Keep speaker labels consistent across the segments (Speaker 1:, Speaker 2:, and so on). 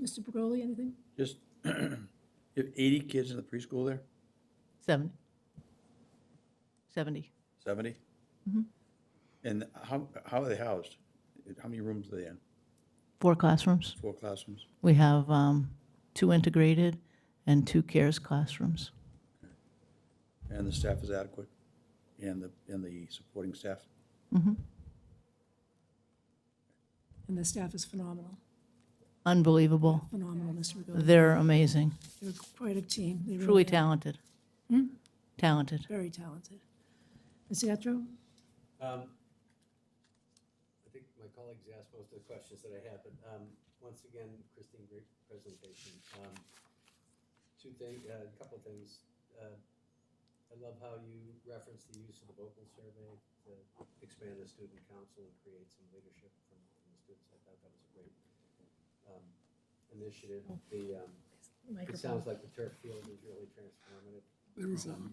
Speaker 1: Mr. Pagoli, anything?
Speaker 2: Just, you have 80 kids in the preschool there?
Speaker 3: 70. 70.
Speaker 2: 70? And how, how are they housed? How many rooms are they in?
Speaker 3: Four classrooms.
Speaker 2: Four classrooms?
Speaker 3: We have um, two integrated and two CARES classrooms.
Speaker 2: And the staff is adequate? And the, and the supporting staff?
Speaker 3: Mm-hmm.
Speaker 1: And the staff is phenomenal,
Speaker 3: Unbelievable.
Speaker 1: phenomenal, Mr. Pagoli.
Speaker 3: They're amazing,
Speaker 1: They're quite a team. They
Speaker 3: truly
Speaker 1: really are
Speaker 3: talented. Talented.
Speaker 1: very talented. Ms. Yatro?
Speaker 4: Um, I think my colleagues asked most of the questions that I had, but um, once again, Christine, great presentation. Um, Two things, a couple of things. Uh, I love how you referenced the use of the vocal survey to expand the student council and create some leadership from from the students. I thought that was a great um, initiative. The, um, it sounds like the turf field is really transformative. um,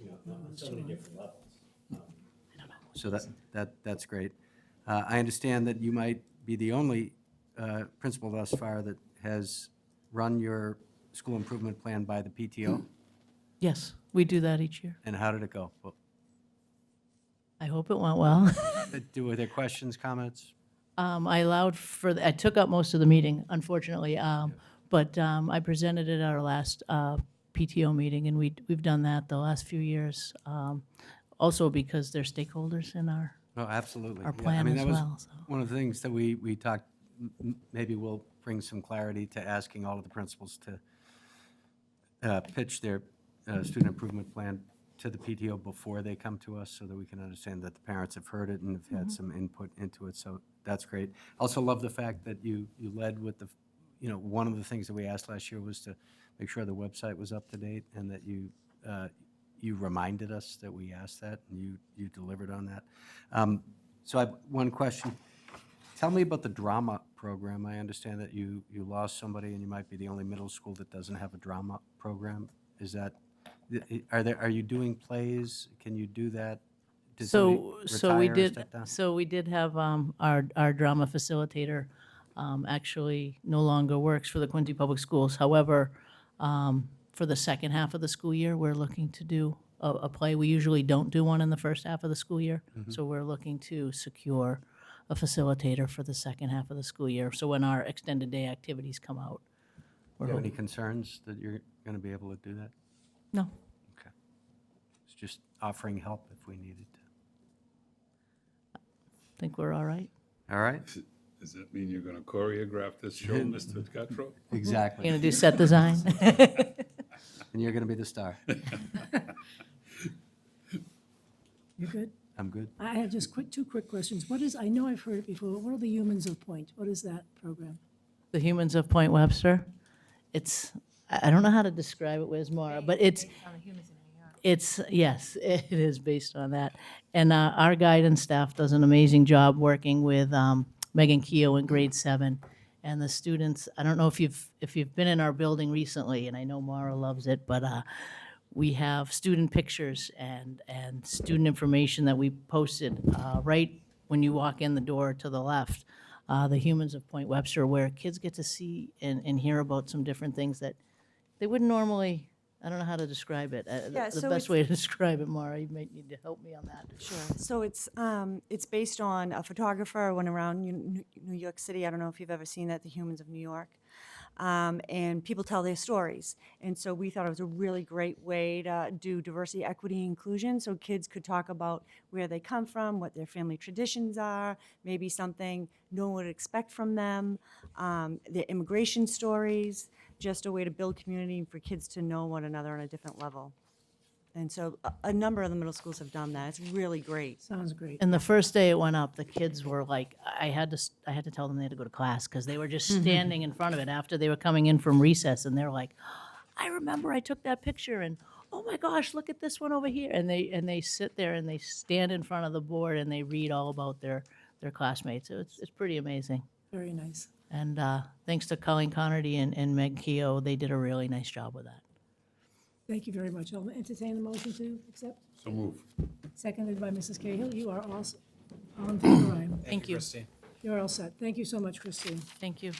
Speaker 4: You know, on so many different levels. Um, so that, that, that's great. Uh, I understand that you might be the only uh, principal thus far that has run your school improvement plan by the PTO,
Speaker 3: Yes, we do that each year.
Speaker 4: and how did it go? Well,
Speaker 3: I hope it went well.
Speaker 4: Do, were there questions, comments?
Speaker 3: Um, I allowed for, I took up most of the meeting, unfortunately, um, but um, I presented it at our last uh, PTO meeting, and we, we've done that the last few years, um, also because they're stakeholders in our,
Speaker 4: Oh, absolutely.
Speaker 3: our
Speaker 4: Yeah, I
Speaker 3: plan
Speaker 4: mean,
Speaker 3: as
Speaker 4: that was
Speaker 3: well, so.
Speaker 4: One of the things that we, we talked, m- m- maybe we'll bring some clarity to asking all of the principals to uh, pitch their uh, student improvement plan to the PTO before they come to us so that we can understand that the parents have heard it and have
Speaker 3: Mm-hmm.
Speaker 4: had some input into it. So that's great. Also love the fact that you, you led with the, f- you know, one of the things that we asked last year was to make sure the website was up to date and that you, uh, you reminded us that we asked that and you, you delivered on that. Um, So I have one question. Tell me about the drama program. I understand that you, you lost somebody and you might be the only middle school that doesn't have a drama program. Is that, are there, are you doing plays? Can you do that? Did
Speaker 3: So,
Speaker 4: somebody
Speaker 3: so we
Speaker 4: retire or
Speaker 3: did,
Speaker 4: step down?
Speaker 3: so we did have um, our, our drama facilitator um, actually no longer works for the Quincy Public Schools. However, um, for the second half of the school year, we're looking to do a, a play. We usually don't do one in the first half of the school year. So we're looking to secure a facilitator for the second half of the school year. So when our extended day activities come out,
Speaker 4: Do you have any concerns that you're going to be able to do that?
Speaker 3: no,
Speaker 4: Okay. It's just offering help if we needed to.
Speaker 3: I think we're all right.
Speaker 4: All right?
Speaker 5: Does that mean you're gonna choreograph this show, Mr. Gattro?
Speaker 3: We're going
Speaker 4: Exactly.
Speaker 3: to do set design.
Speaker 4: And you're going to be the star.
Speaker 1: You're good?
Speaker 4: I'm good.
Speaker 1: I have just quick, two quick questions. What is, I know I've heard it before, but what are the humans of point? What is that program?
Speaker 3: The Humans of Point Webster. It's, I I don't know how to describe it, where's Mara, but it's, it's, yes, it is based on that. And uh, our guidance staff does an amazing job working with um, Megan Keough in grade seven. And the students, I don't know if you've, if you've been in our building recently, and I know Mara loves it, but uh, we have student pictures and, and student information that we posted uh, right when you walk in the door to the left, uh, the Humans of Point Webster, where kids get to see and, and hear about some different things that they wouldn't normally, I don't know how to describe it. Uh,
Speaker 6: Yeah,
Speaker 3: The the
Speaker 6: so
Speaker 3: best
Speaker 6: it's-
Speaker 3: way to describe it, Mara, you might need to help me on that.
Speaker 6: Sure. So it's um, it's based on a photographer went around New- New New York City. I don't know if you've ever seen that, The Humans of New York. Um, and people tell their stories. And so we thought it was a really great way to do diversity, equity, inclusion. So kids could talk about where they come from, what their family traditions are, maybe something no one would expect from them, um, their immigration stories, just a way to build community and for kids to know one another on a different level. And so a, a number of the middle schools have done that. It's really great.
Speaker 1: Sounds great.
Speaker 3: And the first day it went up, the kids were like, I had to, s- I had to tell them they had to go to class because they were just
Speaker 6: Mm-hmm.
Speaker 3: standing in front of it after they were coming in from recess and they're like, "Oh, I remember I took that picture and oh my gosh, look at this one over here. And they, and they sit there and they stand in front of the board and they read all about their, their classmates. It's, it's pretty amazing.
Speaker 1: Very nice.
Speaker 3: And uh, thanks to Colleen Connerty and, and Meg Keough, they did a really nice job with that.
Speaker 1: Thank you very much. I'll entertain the motion to accept,
Speaker 5: So move.
Speaker 1: seconded by Mrs. Cahill. You are all, s- all in favor, I am.
Speaker 3: Thank you.
Speaker 1: You're all set. Thank you so much, Christine.
Speaker 3: Thank you.